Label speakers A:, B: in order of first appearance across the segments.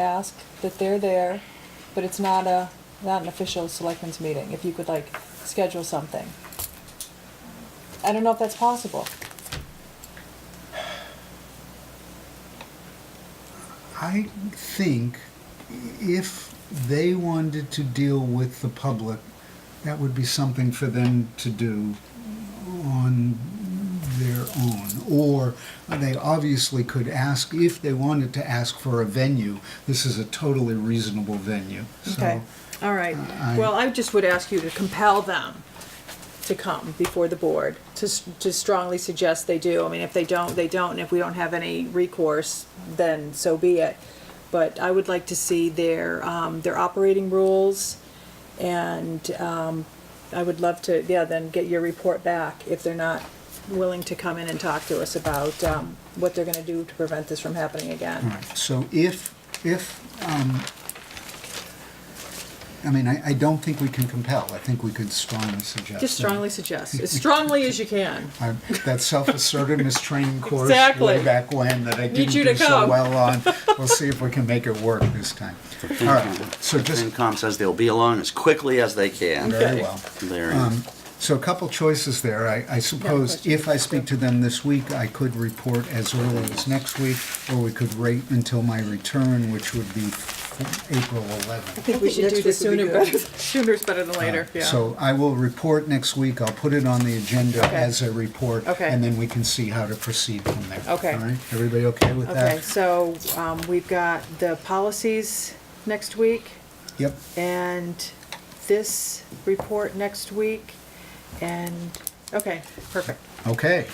A: ask that they're there, but it's not a, not an official selectmen's meeting, if you could like schedule something. I don't know if that's possible.
B: I think if they wanted to deal with the public, that would be something for them to do on their own. Or they obviously could ask, if they wanted to ask for a venue, this is a totally reasonable venue.
A: Okay.
B: So, uh,
C: All right,
B: I-
C: well, I just would ask you to compel them to come before the board, to, s- to strongly suggest they do. I mean, if they don't, they don't, and if we don't have any recourse, then so be it. But I would like to see their, um, their operating rules, and, um, I would love to, yeah, then get your report back if they're not willing to come in and talk to us about, um, what they're gonna do to prevent this from happening
B: all
C: again.
B: right. So if, if, um, I mean, I, I don't think we can compel. I think we could strongly suggest.
C: Just strongly suggest, as strongly as you can.
B: I, that self-assertiveness training course way
C: Exactly.
B: back when that I
C: Need
B: didn't
C: you
B: do
C: to
B: so
C: come.
B: well on. We'll see if we can make it work this time. All right. So just
D: FinCom says they'll be along as quickly as they can.
B: very well.
D: There.
B: Um, so a couple choices there. I, I suppose if I speak to them this week, I could report as early as next week, or we could wait until my return, which would be April 11th.
C: I think we
E: think
C: should do
E: next
C: the
E: week would
C: sooner,
E: be good.
C: better- sooner's better than later, yeah.
B: So I will report next week. I'll put it on the agenda
C: Okay.
B: as a report,
C: Okay.
B: and then we can see how to proceed from there.
C: Okay.
B: All right. Everybody okay with that?
C: Okay, so um, we've got the policies next week
B: Yep.
C: and this report next week and, okay, perfect.
B: Okay.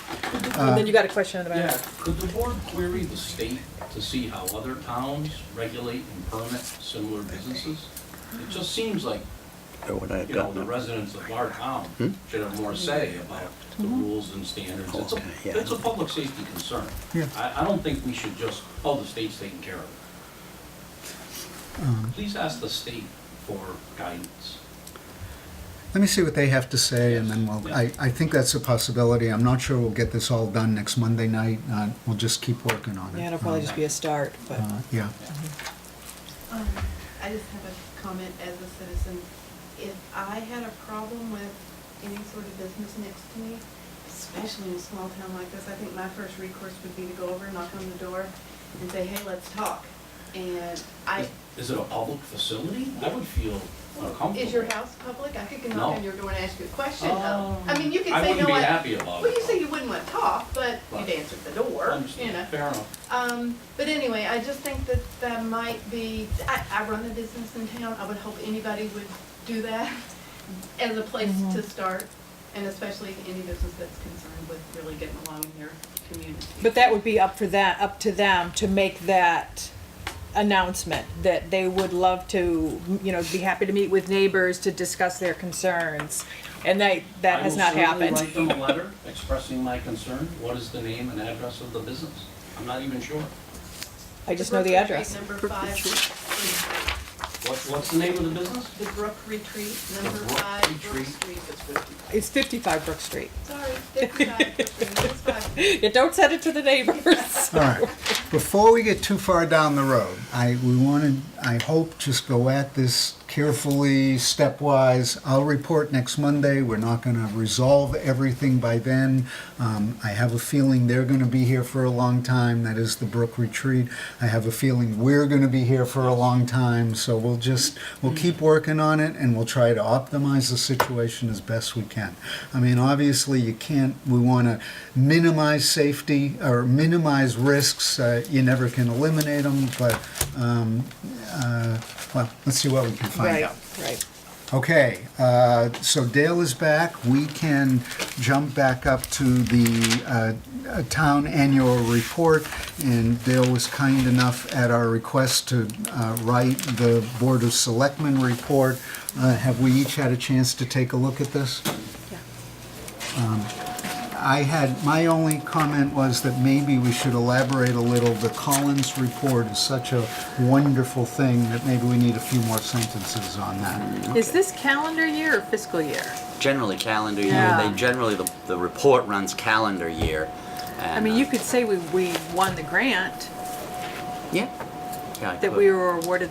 C: And then you got a question in the
F: Uh, Yeah,
C: back.
F: could the board query the state to see how other towns regulate and permit similar businesses? It just seems like,
D: Or would I have
F: you know, the
D: gotten it?
F: residents of our town
D: Hmm?
F: should have more say about the rules and standards. It's a,
D: Okay, yeah.
F: it's a public safety concern.
B: Yeah.
F: I, I don't think we should just, oh, the state's taking care of it. Please ask the state for guidance.
B: Let me see what they have to say, and then we'll, I, I think that's a possibility. I'm not sure we'll get this all done next Monday night. Uh, We'll just keep working on it.
A: Yeah, it'll probably just be a start, but,
F: Uh-huh.
B: Uh, Yeah.
E: Um, I just have a comment as a citizen. If I had a problem with any sort of business next to me, especially in a small town like this, I think my first recourse would be to go over, knock on the door, and say, hey, let's talk. And I,
F: Is- Is it a public facility? I would feel uncomfortable.
E: is your house public? I could go
F: No.
E: knock on your door and ask you a question.
F: Oh.
E: I mean, you could
F: I
E: say, no,
F: wouldn't be
E: I,
F: happy about it.
E: well, you say you wouldn't want to talk, but you'd
F: Right.
E: answer the door, you
F: Understand.
E: know.
F: Fair enough.
E: Um, but anyway, I just think that that might be, I, I run a business in town, I would hope anybody would do that as a place
C: Mm-hmm.
E: to start, and especially any business that's concerned with really getting along in their community.
C: But that would be up for that, up to them to make that announcement, that they would love to, you know, be happy to meet with neighbors to discuss their concerns. And they, that has not
F: I will
C: happened.
F: certainly write them a letter expressing my concern. What is the name and address of the business? I'm not even sure.
C: I just know the
E: Brook
C: address.
E: Retreat number five,
F: What, what's the name of the business?
E: the Brook Retreat, number
F: The Brook
E: five, Brook
F: Retreat.
E: Street.
C: It's 55 Brook Street.
E: Sorry, fifty-five, Brook Street, it's five.
C: You don't send it to the neighbors.
B: All right. Before we get too far down the road, I, we want to, I hope, just go at this carefully, stepwise. I'll report next Monday. We're not going to resolve everything by then. Um, I have a feeling they're going to be here for a long time. That is the Brook Retreat. I have a feeling we're going to be here for a long time. So we'll just, we'll keep working on it and we'll try to optimize the situation as best we can. I mean, obviously, you can't, we want to minimize safety or minimize risks. Uh, you never can eliminate them, but, um, uh, well, let's see what we can find out.
C: right.
B: Okay, uh, so Dale is back. We can jump back up to the uh, uh, town annual report, and Dale was kind enough at our request to uh, write the Board of Selectmen report. Uh, Have we each had a chance to take a look at this? Um, I had, my only comment was that maybe we should elaborate a little. The Collins report is such a wonderful thing that maybe we need a few more sentences on that.
C: Is this calendar year or fiscal year?
D: Generally calendar year,
C: Yeah.
D: they generally, the, the report runs calendar year. uh,
C: I mean, you could say we, we won the grant.
D: Yeah, Yeah, I
C: that
D: could.
C: we were awarded